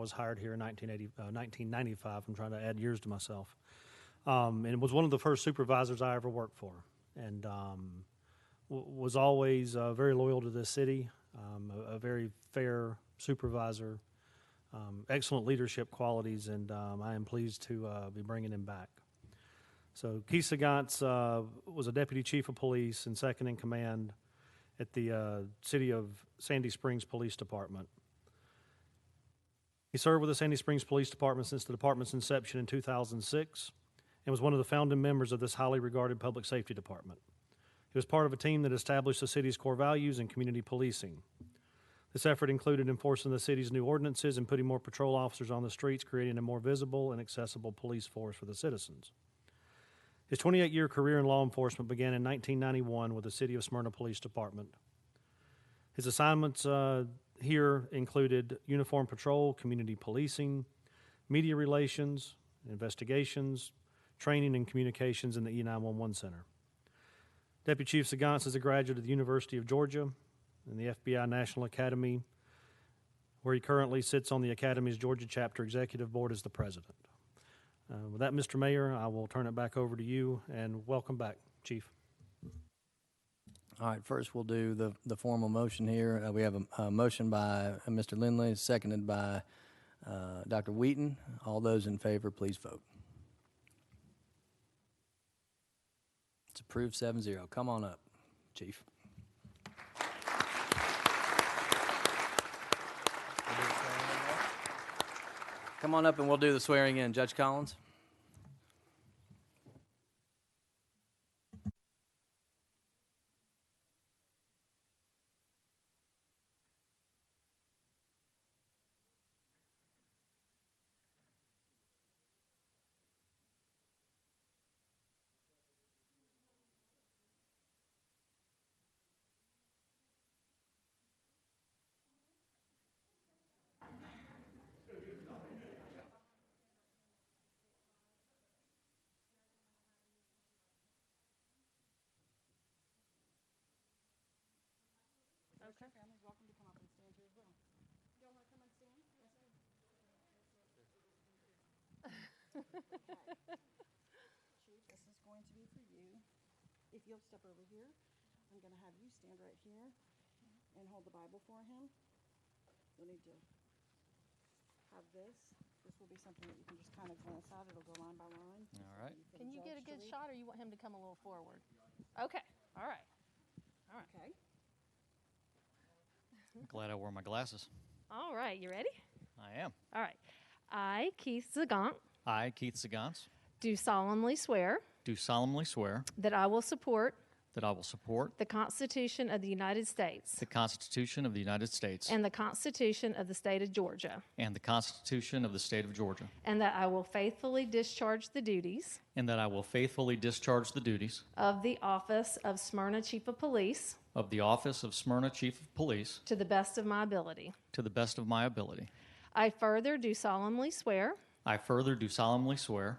was hired here in 1980, uh, 1995. I'm trying to add years to myself. Um, and was one of the first supervisors I ever worked for. And um, w- was always uh, very loyal to this city, um, a, a very fair supervisor, um, excellent leadership qualities, and um, I am pleased to uh, be bringing him back. So Keith Sagantz, uh was a deputy chief of police and second in command at the uh, city of Sandy Springs Police Department. He served with the Sandy Springs Police Department since the department's inception in 2006 and was one of the founding members of this highly regarded public safety department. He was part of a team that established the city's core values and community policing. This effort included enforcing the city's new ordinances and putting more patrol officers on the streets, creating a more visible and accessible police force for the citizens. His 28 year career in law enforcement began in 1991 with the City of Smyrna Police Department. His assignments uh, here included uniform patrol, community policing, media relations, investigations, training, and communications in the E E911 Center. Deputy Chief Sagans is a graduate of the University of Georgia and the FBI National Academy, where he currently sits on the Academy's Georgia Chapter Executive Board as the president. Uh, With that, Mr. Mayor, I will turn it back over to you, and welcome back, Chief. All right, first we'll do the, the formal motion here. Uh, we have a, a motion by uh, Mr. Lindley, seconded by, uh, Dr. Wheaton. All those in favor, please vote. It's approved seven zero. Come on up, chief. Come on up and we'll do the swearing in. Judge Collins? Okay. Family's welcome to come up and stand here as well. Y'all wanna come and stand? Chief, this is going to be for you. If you'll step over here, I'm gonna have you stand right here and hold the Bible for him. You'll need to have this. This will be something that you can just kind of glance at. It'll go line by line. All right. can Can you get a judge good the read. shot, or you want him to come a little forward? Okay, all right. Okay. Mm-hmm. Glad I wore my glasses. All right, you ready? I am. All right. I, Keith Zagant, I, Keith Sagans, do solemnly swear do solemnly swear that I will support that I will support the Constitution of the United States the Constitution of the United States and the Constitution of the State of Georgia, and the Constitution of the State of Georgia, and that I will faithfully discharge the duties and that I will faithfully discharge the duties of the office of Smyrna Chief of Police of the office of Smyrna Chief of Police to the best of my ability. to the best of my ability. I further do solemnly swear I further do solemnly swear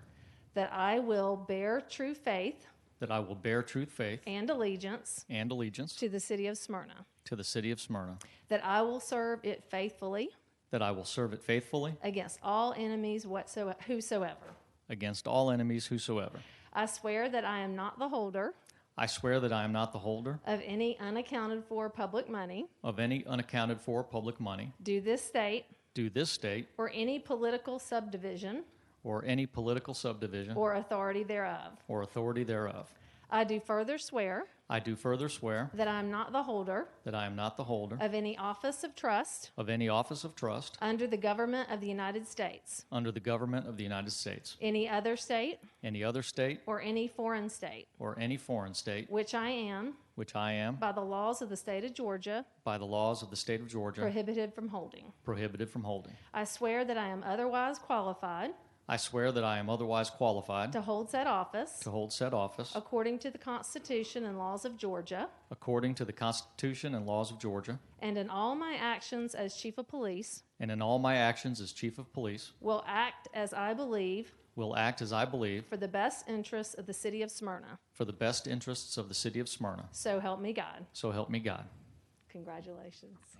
that I will bear true faith that I will bear true faith and allegiance and allegiance to the city of Smyrna. to the city of Smyrna, That I will serve it faithfully that I will serve it faithfully against all enemies whatsoever, whosoever. against all enemies whosoever. I swear that I am not the holder I swear that I am not the holder of any unaccounted for public money, of any unaccounted for public money do this state, due this state or any political subdivision or any political subdivision or authority thereof. or authority thereof. I do further swear I do further swear that I am not the holder that I am not the holder of any office of trust of any office of trust under the government of the United States, under the government of the United States, any other state, any other state, or any foreign state, or any foreign state, which I am, which I am, by the laws of the state of Georgia, by the laws of the state of Georgia, prohibited from holding. prohibited from holding. I swear that I am otherwise qualified I swear that I am otherwise qualified to hold said office to hold said office according to the Constitution and laws of Georgia, according to the Constitution and laws of Georgia, and in all my actions as Chief of Police and in all my actions as Chief of Police, will act as I believe will act as I believe for the best interests of the city of Smyrna. for the best interests of the city of Smyrna. So help me God. So help me God. Congratulations.